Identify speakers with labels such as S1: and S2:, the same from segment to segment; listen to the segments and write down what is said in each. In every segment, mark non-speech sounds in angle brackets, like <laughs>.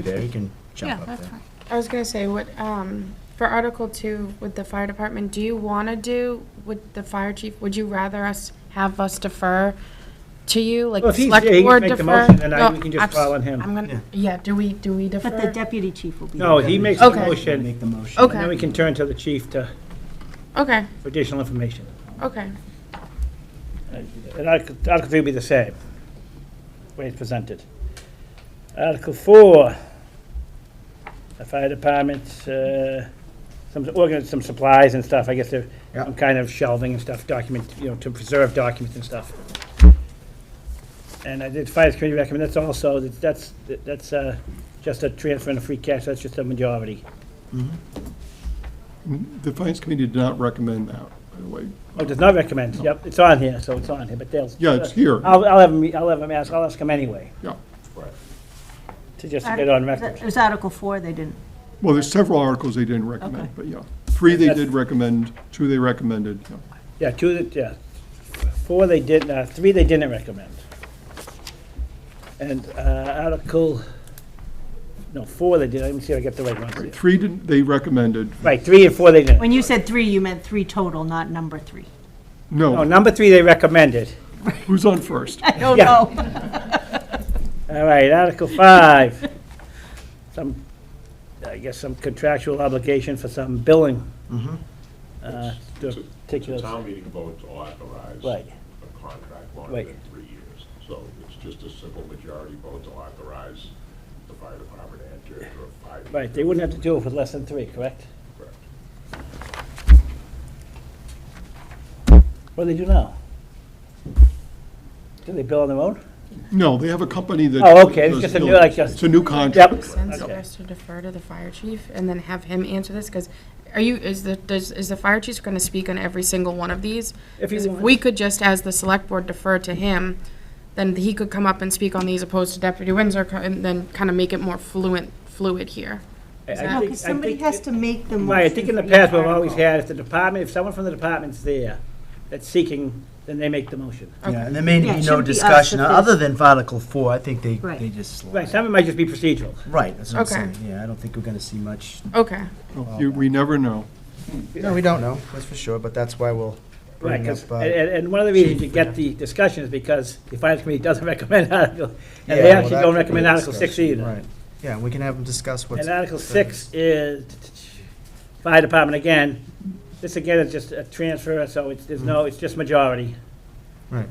S1: there, you can jump
S2: Yeah,
S1: up
S2: that's
S1: there.
S2: fine.
S3: I was gonna say, what, um, for Article Two with the fire department, do you wanna do, with the fire chief, would you rather us, have us defer to you, like
S4: Well,
S3: the
S4: if he's-
S3: select
S4: yeah, he can
S3: board
S4: make the
S3: defer?
S4: motion, then I-
S3: No,
S4: we can just
S3: abs-
S4: file on him.
S3: I'm gonna, yeah, do we, do we defer?
S5: But the deputy chief will be.
S4: No, he makes the
S3: Okay.
S4: motion,
S1: Make the motion.
S4: and then we
S3: Okay,
S4: can turn to the chief to,
S3: okay,
S4: for additional information.
S3: okay,
S4: And Article Article 3 will be the same, way it's presented. Article 4, the fire department, uh, some, organize some supplies and stuff, I guess they're,
S1: Yeah.
S4: some kind of shelving and stuff, document, you know, to preserve documents and stuff. And I did, fire committee recommend, that's also, that's, that's uh, just a transfer and a free cash, that's just a majority.
S6: The Finance Committee did not recommend that, by the way.
S4: Oh, does not recommend, yep, it's on here, so it's on here, but they'll.
S6: Yeah, it's here.
S4: I'll, I'll have him, I'll have him ask, I'll ask him anyway,
S6: Yeah.
S4: to just get on record.
S5: It was Article Four, they didn't.
S6: Well, there's several articles they didn't recommend,
S5: Okay.
S6: but yeah. Three they
S4: That's-
S6: did recommend, two they recommended. yeah.
S4: Yeah, two, that- yeah, four they did, uh, three they didn't recommend. And, uh, Article, no, four they did, let me see if I get the right ones.
S6: Three didn't, they recommended.
S4: Right, three and four they didn't.
S5: When you said three, you meant three total, not number three. <laughs>
S4: No,
S6: No,
S4: number three they recommended.
S6: who's on
S4: <laughs>
S6: first?
S5: I don't
S4: Yeah.
S5: know.
S4: All right, Article five, some, I guess some contractual obligation for some billing. Uh, to
S7: It's a-
S4: particular-
S7: It's a town meeting vote to authorize
S4: Right.
S7: a contract
S4: Right.
S7: longer than three years. So it's just a simple majority vote to authorize the fire department to enter into a five.
S4: Right, they wouldn't have to do it with less than three, correct?
S7: Correct.
S4: What do they do now? Do they bill on their own?
S6: No, they have a company that.
S4: Oh, okay, it's
S6: does
S4: just a new,
S6: buildings.
S4: like, just-
S6: It's a new contract.
S3: sense for
S4: Okay.
S3: us to defer to the fire chief and then have him answer this, cause are you, is the, does, is the fire chief gonna speak on every single one of these?
S4: If he
S3: Because
S4: wants.
S3: we could just, as the select board, defer to him, then he could come up and speak on these opposed to Deputy Windsor, co- and then kind of make it more fluent, fluid here.
S4: I- I
S3: No,
S5: No,
S4: think- I
S5: because somebody
S4: think
S5: has
S4: it-
S5: to make the motion.
S4: Right, I think in the
S5: for each
S4: past, we've always
S5: article.
S4: had, if the department, if someone from the department's there that's seeking, then they make the motion.
S1: Yeah, and there may
S5: Yeah, it
S1: be no
S5: shouldn't be us
S1: discussion,
S5: if
S1: other than for Article Four, I think they,
S5: Right.
S1: they just slide.
S4: Right, some of it might just be procedural.
S1: Right, that's what I'm
S3: Okay.
S1: saying, yeah, I don't think we're gonna see much,
S3: Okay,
S6: You- We never know.
S1: no, we don't know, that's for sure, but that's why we'll
S4: Right,
S1: bring up,
S4: 'cause-
S1: uh,
S4: and, and one of the reasons you get the discussion is because the finance committee doesn't <laughs> recommend Article, and
S1: yeah,
S4: they
S1: well,
S4: actually
S1: that could
S4: don't
S1: be
S4: recommend
S1: a
S4: Article six
S1: discussion,
S4: either.
S1: Right, yeah, we can have them discuss what's.
S4: And Article six is fire department again. This again is just a transfer, so it's, there's no, it's just majority.
S1: Right,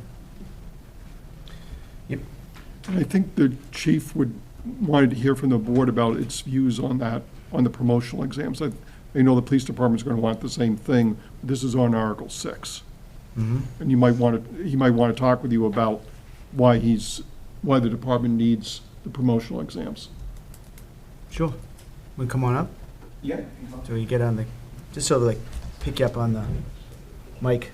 S6: I think the chief would, wanted to hear from the board about its views on that, on the promotional exams. I I know the police department's going to want the same thing. This is on Article 6. And you might want to, he might want to talk with you about why he's, why the department needs the promotional exams.
S1: sure, we come on up,
S6: Yeah.
S1: so you get on the, just so they like, pick you up on the mic.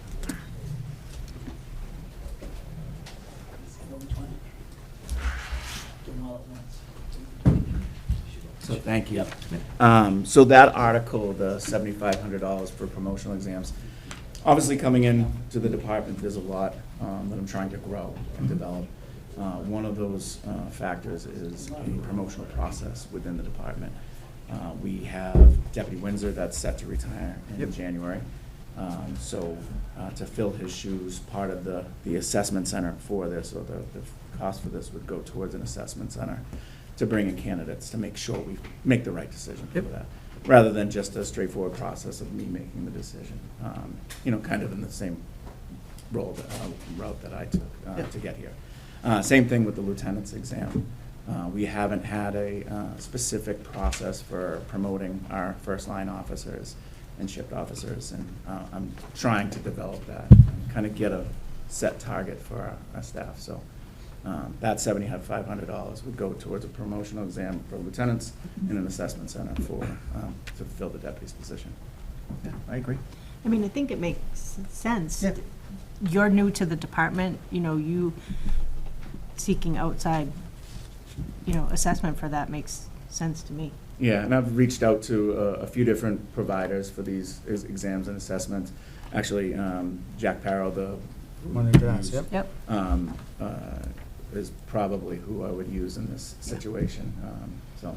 S8: So, thank you. Um, So that article, the seventy-five hundred dollars for promotional exams, obviously coming in to the department, there's a lot um, that I'm trying to grow and develop. Uh, One of those uh, factors is a promotional process within the department. Uh, We have Deputy Windsor that's set to retire in January. Um, So uh, to fill his shoes, part of the, the assessment center for this, or the, the cost for this would go towards an assessment center to bring in candidates, to make sure we make the right decision for that, rather than just a straightforward process of me making the decision. Um, You know, kind of in the same role, that- uh, route that I took uh, to get here. Uh, Same thing with the lieutenant's exam. Uh, We haven't had a uh, specific process for promoting our first-line officers and shift officers, and uh, I'm trying to develop that, kind of get a set target for our- our staff. So um, that seventy-five hundred dollars would go towards a promotional exam for lieutenants and an assessment center for, um, to fill the deputy's position.
S1: Yeah, I agree.
S5: I mean, I think it makes sense.
S1: Yeah.
S5: You're new to the department, you know, you seeking outside, you know, assessment for that makes sense to me.
S8: Yeah, and I've reached out to a, a few different providers for these ex- exams and assessments. Actually, um, Jack Parrow, the.
S1: One of us, yep.
S5: Yep.
S8: Um, uh, is probably who I would use in this situation. Um, So.